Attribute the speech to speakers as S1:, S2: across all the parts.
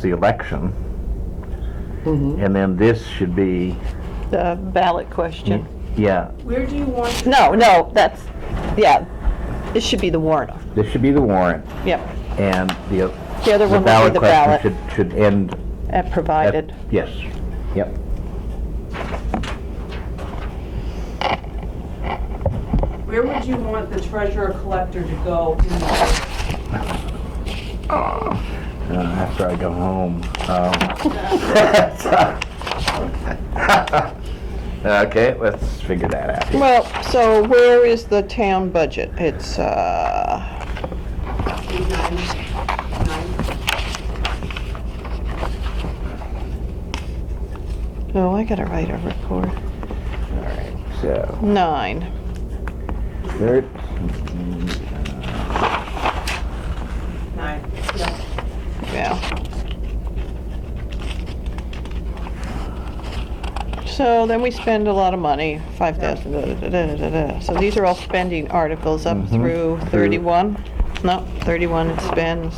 S1: the election.
S2: Mm-hmm.
S1: And then this should be,
S2: the ballot question.
S1: yeah,
S3: Where do you want to
S2: No, no, that's, yeah, it should be the warrant.
S1: this should be the warrant,
S2: Yep,
S1: and the
S2: The other one will be the ballot.
S1: question should, should end
S2: and
S1: at,
S2: provided.
S1: yes, yep.
S3: where would you want the treasurer collector to go in the,
S1: Uh, After I go home. um. Okay, let's figure that out.
S2: Well, so where is the town budget? It's, uh,
S3: nine, nine?
S2: oh, I gotta write a report.
S1: All right, so,
S2: Nine.
S1: there,
S3: Nine, yeah.
S2: Yeah. So then we spend a lot of money, five thousand, da, da, da, da, da. So these are all spending articles up through thirty-one? No, thirty-one it spends.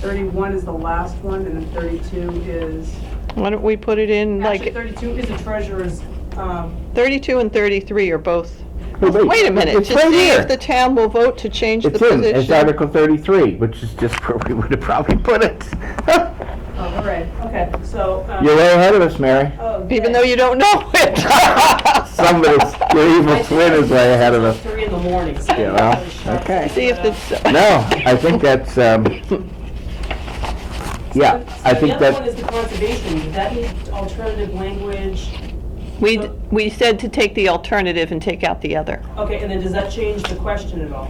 S3: Thirty-one is the last one, and then thirty-two is,
S2: Why don't we put it in
S3: actually,
S2: like,
S3: thirty-two is the treasurer's, um,
S2: thirty-two and thirty-three are both,
S1: wait.
S2: wait a minute.
S1: It's
S2: to
S1: right
S2: see if
S1: here.
S2: The town will vote to change the
S1: It's in, it's
S2: position.
S1: Article 33, which is just where we would have probably put it.
S3: oh, all right, okay, so, um.
S1: You're way ahead of us, Mary.
S3: oh,
S2: Even
S3: yeah.
S2: though you don't know it.
S1: Somebody's, your evil twin is way ahead of us.
S3: Three in the morning. so-
S1: Yeah, well, okay.
S2: See if it's.
S1: No, I think that's, um, yeah, I think
S3: The other one
S1: that,
S3: is the conservation, Does that need alternative language,
S2: We, d- we said to take the alternative and take out the other.
S3: okay, and then does that change the question at all?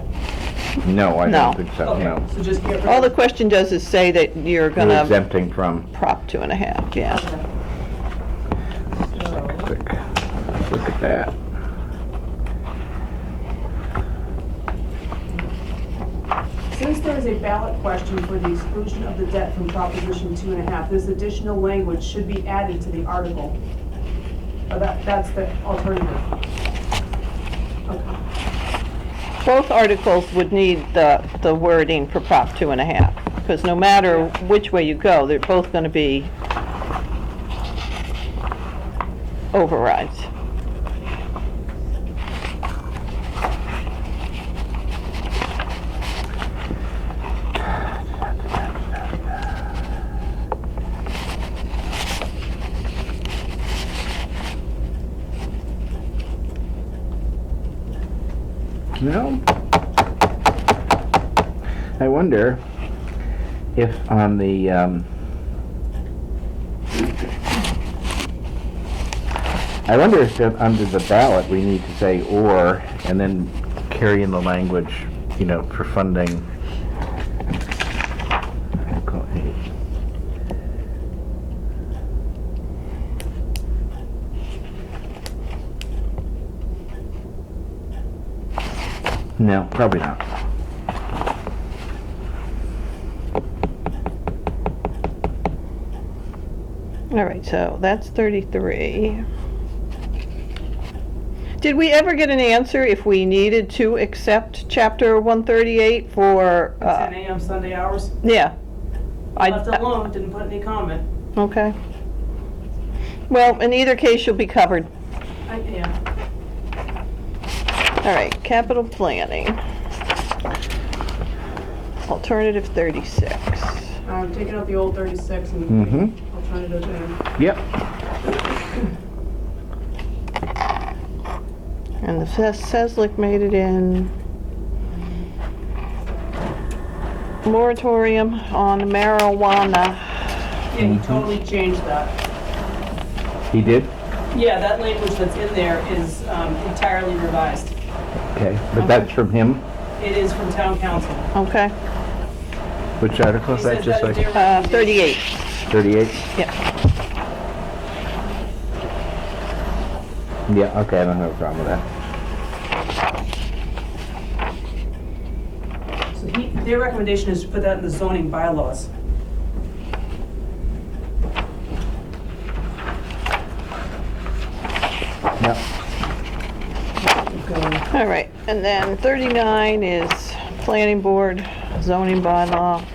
S1: no, I
S2: No.
S1: don't think so, no.
S3: Okay, so just get rid of.
S2: All the question does is say that you're
S1: You're
S2: gonna
S1: exempting from,
S2: prop two and a half, yeah.
S3: So-
S1: quick, look at that.
S3: Since there is a ballot question for the exclusion of the debt from Proposition two and a half, this additional language should be added to the article. Uh, that, that's the alternative. Okay.
S2: Both articles would need the, the wording for prop two and a half, because no matter which way you go, they're both gonna be overrides.
S1: You know, I wonder if on the, um, I wonder if that under the ballot, we need to say or, and then carry in the language, you know, for funding. Article eight. No, probably not.
S2: All right, so that's thirty-three. Did we ever get an answer if we needed to accept chapter one thirty-eight for,
S3: Ten
S2: uh,
S3: AM Sunday hours,
S2: yeah? I-
S3: left alone, didn't put any comment.
S2: Okay. Well, in either case, you'll be covered.
S3: I, yeah,
S2: All right, capital planning. Alternative 36.
S3: I'm taking out the old thirty-six and
S1: Mhm.
S3: alternative and
S1: Yep.
S2: And the Ses- Seslik made it in. Moratorium on marijuana.
S3: Yeah, he totally changed that.
S1: He did?
S3: Yeah, that language that's in there is um, entirely revised.
S1: Okay, but that's from him?
S3: It is from town council.
S2: Okay,
S1: Which article is
S3: He
S1: that,
S3: said
S1: just
S3: that is
S1: like
S3: their
S2: uh,
S3: recommendation.
S2: 38.
S1: 38?
S2: Yeah,
S1: Yeah, okay, I don't have a problem with that.
S3: So he, their recommendation is to put that in the zoning bylaws.
S1: Yep.
S2: all right. And then 39 is planning board, zoning bylaw.